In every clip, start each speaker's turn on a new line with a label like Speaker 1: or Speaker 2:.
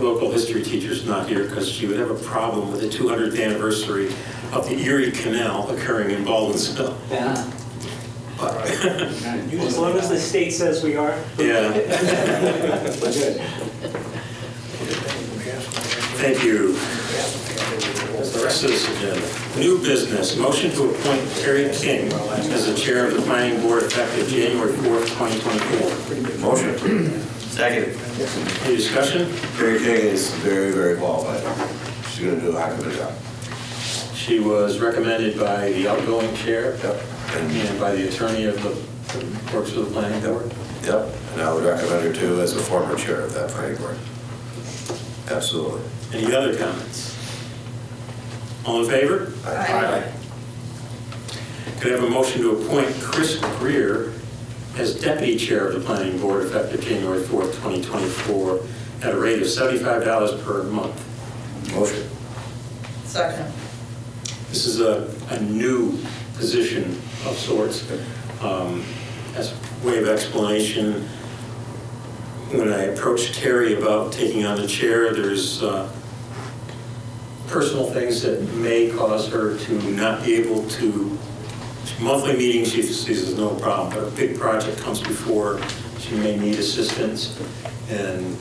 Speaker 1: local history teacher's not here because she would have a problem with the 200th anniversary of the Erie Canal occurring in Baldwinsville.
Speaker 2: Yeah.
Speaker 3: As long as the state says we are.
Speaker 1: Yeah, thank you. The rest of this agenda. New business, motion to appoint Terry King as the chair of the planning board effective January 4th, 2024.
Speaker 4: Motion. Second.
Speaker 1: Any discussion?
Speaker 4: Carrie King is very, very qualified. She's gonna do a heck of a job.
Speaker 1: She was recommended by the outgoing chair
Speaker 4: Yep. And,
Speaker 1: and by the attorney of the, that works for the planning board.
Speaker 4: yep, and I would recommend her too as a former chair of that planning board. Absolutely.
Speaker 1: Any other comments? All in favor?
Speaker 4: Aye.
Speaker 1: Could I have a motion to appoint Chris Greer as deputy chair of the planning board effective January 4th, 2024, at a rate of $75 per month?
Speaker 4: Motion.
Speaker 5: Second.
Speaker 1: This is a, a new position of sorts. Um, As a way of explanation, when I approached Terry about taking on the chair, there's uh, personal things that may cause her to not be able to, monthly meetings, she sees as no problem, but a big project comes before, she may need assistance. And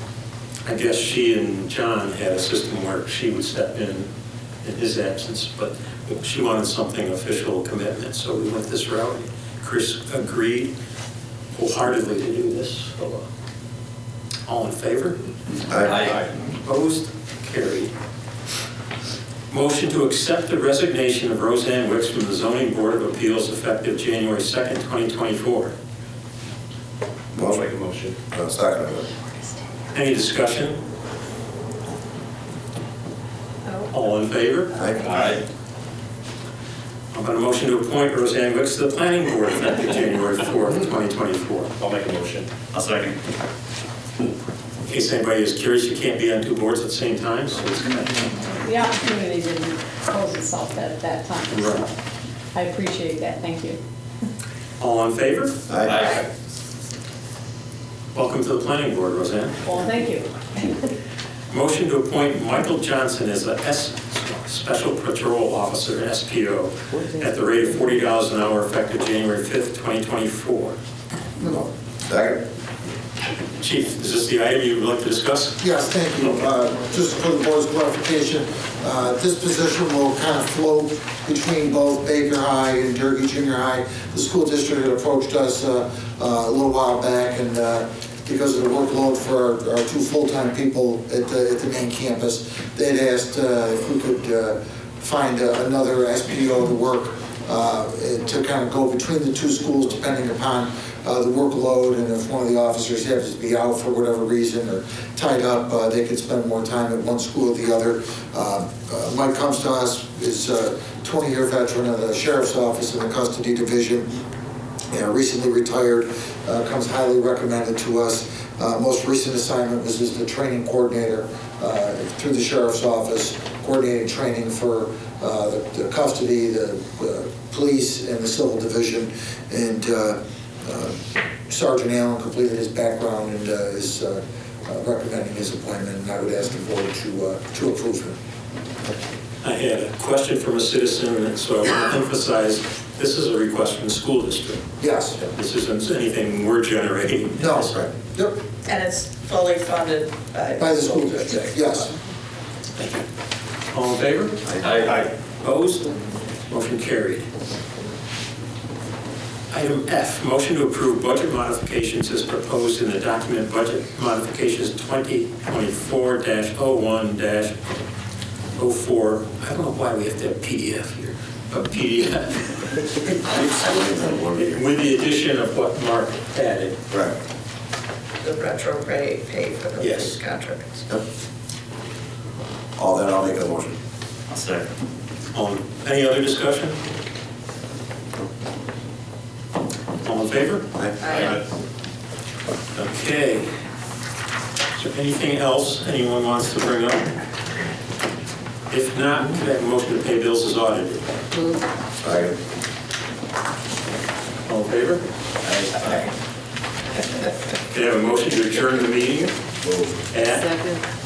Speaker 1: I guess she and John had a system where she would step in in his absence, but she wanted something official commitment, so we went this route. Chris agreed wholeheartedly to do this, so, uh, all in favor? Opposed? Carried. Motion to accept the resignation of Roseanne Wicks from the Zoning Board of Appeals effective January 2nd, 2024.
Speaker 4: Motion. Make a motion. No, second.
Speaker 1: Any discussion?
Speaker 5: Oh,
Speaker 1: All in favor?
Speaker 4: Aye.
Speaker 1: I'm going to motion to appoint Roseanne Wicks to the Planning Board effective January 4th, 2024.
Speaker 6: I'll make a motion. I'll second.
Speaker 1: In case anybody is curious, you can't be on two boards at the same time, so it's kind of...
Speaker 5: The opportunity didn't pose itself at that time, so I appreciate that, thank you.
Speaker 1: All in favor?
Speaker 4: Aye.
Speaker 1: Welcome to the Planning Board, Roseanne.
Speaker 5: Well, thank you.
Speaker 1: Motion to appoint Michael Johnson as a S, Special Patrol Officer, SPO, at the rate of forty dollars an hour effective January fifth, twenty twenty-four.
Speaker 7: No.
Speaker 4: Second.
Speaker 1: Chief, is this the item you would like to discuss?
Speaker 7: Yes, thank you. Uh, Just for the board's clarification, uh, this position will kind of float between both Baker High and Durkee Junior High. The school district had approached us uh, uh, a little while back, and uh, because of the workload for our- our two full-time people at the at the main campus, they'd asked uh, if we could uh, find uh, another SPO to work uh, to kind of go between the two schools depending upon uh, the workload and if one of the officers happens to be out for whatever reason or tied up, uh, they could spend more time at one school or the other. Uh, uh, Mike comes to us, is a 20-year veteran of the sheriff's office in the custody division, you know, recently retired, uh, comes highly recommended to us. Uh, Most recent assignment was as the training coordinator uh, through the sheriff's office, coordinating training for uh, the the custody, the uh, police, and the civil division. And uh, uh, Sergeant Allen completed his background and uh, is uh, uh, recommending his appointment, and I would ask the board to uh, to approve him.
Speaker 1: I had a question from a citizen, and so I want to emphasize, this is a request from the school district.
Speaker 7: Yes.
Speaker 1: This isn't anything we're generating.
Speaker 7: No, right. Yep,
Speaker 5: And it's fully funded by.
Speaker 7: by the school district, yes.
Speaker 1: Thank you. All in favor?
Speaker 6: Aye.
Speaker 1: Opposed? Motion carried. Item F, motion to approve budget modifications as proposed in the document Budget Modifications 2024-01-04. I don't know why we have to have PDF here, but PDF. With the addition of what Mark added.
Speaker 4: Right.
Speaker 5: The retro pay, pay for the
Speaker 1: Yes.
Speaker 5: police contracts.
Speaker 4: Yep. All that, I'll make a motion.
Speaker 6: I'll second.
Speaker 1: On, any other discussion? All in favor?
Speaker 5: Aye.
Speaker 1: Okay. Is there anything else anyone wants to bring up? If not, could I have a motion to pay bills as audited?
Speaker 4: Second.
Speaker 1: All in favor? Could I have a motion to adjourn the meeting
Speaker 4: Move.
Speaker 1: at
Speaker 5: Second.